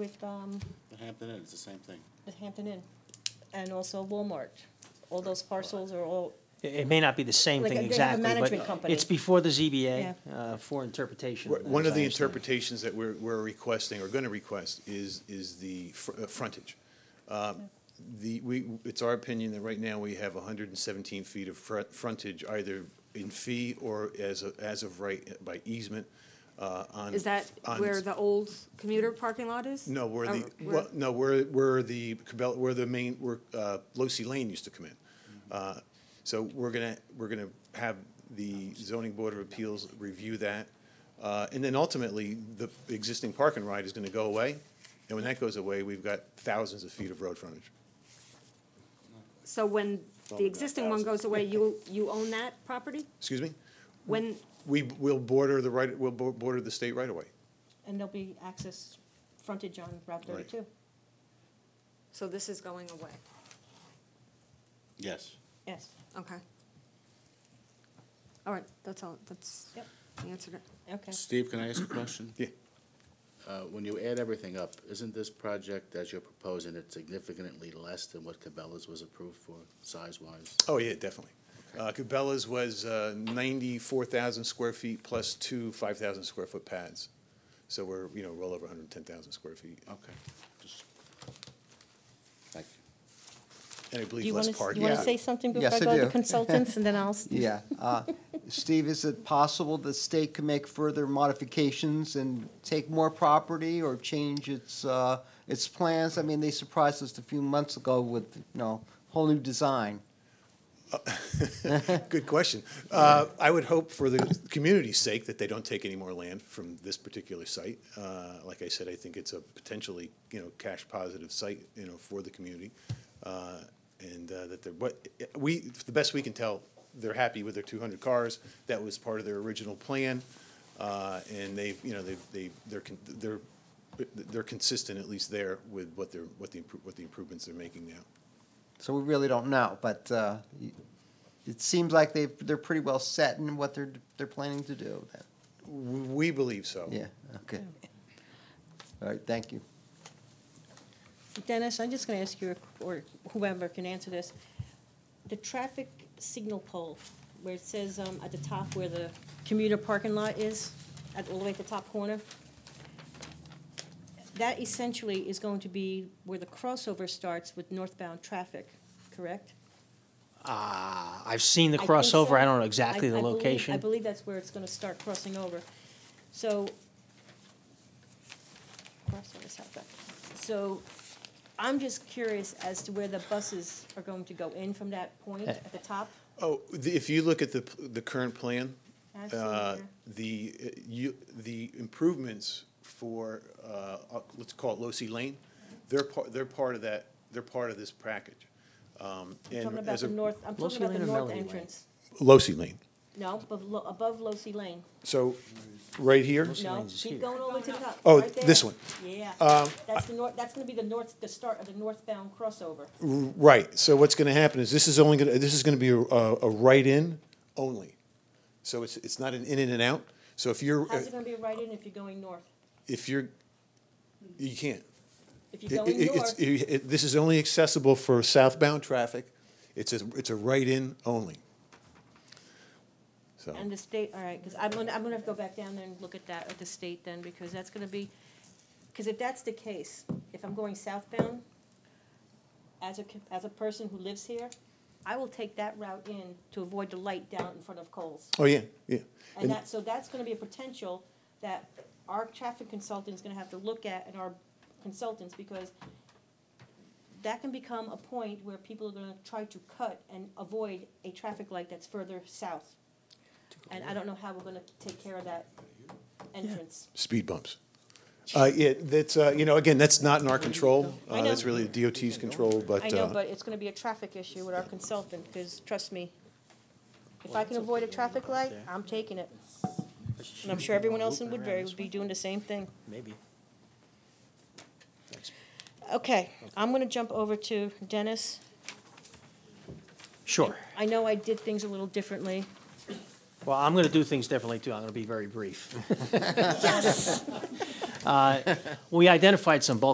with um, The Hampton Inn, it's the same thing. the Hampton Inn and also Walmart. All those parcels are all, It it may not be the same Like, thing they have a exactly, management but company. it's before the ZBA uh, for interpretation. Right, One as of I the understand it. interpretations that we're, we're requesting, or going to request, is, is the fr- uh, frontage. Uh, The, we, it's our opinion that right now we have hundred and seventeen feet of front, frontage, either in fee or as, a- as of right by easement, uh, on. Is that on- where the old commuter parking lot is? No, where Or the, e, well, no, where, where the Cabela, where the main, where, uh, Losi Lane used to come in. Uh, So we're gonna, we're gonna have the zoning board of appeals review that. Uh, and then ultimately, the existing park and ride is gonna go away. And when that goes away, we've got thousands of feet of road frontage. So when Well, the existing one goes away, you, you own that property? Excuse me? When, We will border the right, we'll bo- border the state right away. and there'll be access frontage on Route Right. 32. so this is going away, Yes. Yes, okay. All right, that's all, that's, Yep. I answered it. okay. Steve, can I ask a question? Yeah. Uh, When you add everything up, isn't this project, as you're proposing, it significantly less than what Cabela's was approved for, size-wise? Oh, yeah, definitely. Uh, Cabela's was uh, 94,000 square feet plus two 5,000 square foot pads. So we're, you know, well over 110,000 square feet. Okay. just- Thank you. And I Do believe you want less to, you parking. want to Yeah. say something before I Yes, I go to do. consultants and then I'll? Yeah. uh, Steve, is it possible the state can make further modifications and take more property or change its, uh, its plans? I mean, they surprised us a few months ago with, you know, whole new design. Good question. Uh, I would hope for the community's sake that they don't take any more land from this particular site. Uh, Like I said, I think it's a potentially, you know, cash positive site, you know, for the community. Uh, And uh, that they're, what, we, the best we can tell, they're happy with their two hundred cars. That was part of their original plan. Uh, And they've, you know, they've, they, they're, con- they're, they're consistent, at least there, with what they're, what the, impro- what the improvements they're making now. So we really don't know, but uh, it seems like they, they're pretty well set in what they're, they're planning to do. then. W- We believe so. Yeah, okay. All right, thank you. Dennis, I'm just going to ask you, or whoever can answer this. The traffic signal pole, where it says um, at the top where the commuter parking lot is, at, all the way at the top corner, that essentially is going to be where the crossover starts with northbound traffic, correct? Ah, I've seen the I think so. crossover, I don't know exactly I- the I believe- I location. believe that's where it's gonna start crossing over. So, crossover is out back. So I'm just curious as to where the buses are going to go in from that point Eh, at the top. Oh, the, if you look at the, p- the current plan, I've seen it uh, there. the, uh, you, the improvements for, uh, uh, let's call it Losi Lane, they're part, they're part of that, they're part of this package. Um, I'm and talking about as the a- north, I'm Losi talking about Lane the or north Melody Lane? entrance. Losi Lane. No, above, Lo- above Losi Lane. So, right here, No, Lane's keep here. going all the way to the top. Oh, right there. this one. Um, Yeah. That's the north, that's gonna be the north, the start of the northbound crossover. right, so what's gonna happen is this is only gonna, this is gonna be a, a a right-in only. So it's, it's not an in and an out, so if you're, How's it gonna be right in if you're going north? if you're, you can't. If you're It- going it- it's- north, it- it- This is only accessible for southbound traffic. It's a, it's a right-in only. So, and the state, all right, because I'm gonna, I'm gonna have to go back down there and look at that, at the state then, because that's gonna be, because if that's the case, if I'm going southbound, as a, co- as a person who lives here, I will take that route in to avoid the light down in front of Coles. oh, yeah, yeah. And And that, so that's gonna be a potential that our traffic consultant's gonna have to look at and our consultants, because that can become a point where people are gonna try to cut and avoid a traffic light that's further south. And I don't know how we're gonna take care of that entrance. speed bumps. Uh, yeah, that's, uh, you know, again, that's not in our control. I Uh, know. That's really the DOT's control, but. I know, uh, but it's gonna be a traffic issue with our consultant, because trust me, if I can avoid a traffic light, I'm taking it. And I'm sure everyone else in Woodbury would be doing the same thing. Maybe. Okay, I'm gonna jump over to Dennis. Sure. I know I did things a little differently. Well, I'm going to do things differently, too. I'm going to be very brief. Yes! Uh, We identified some bulk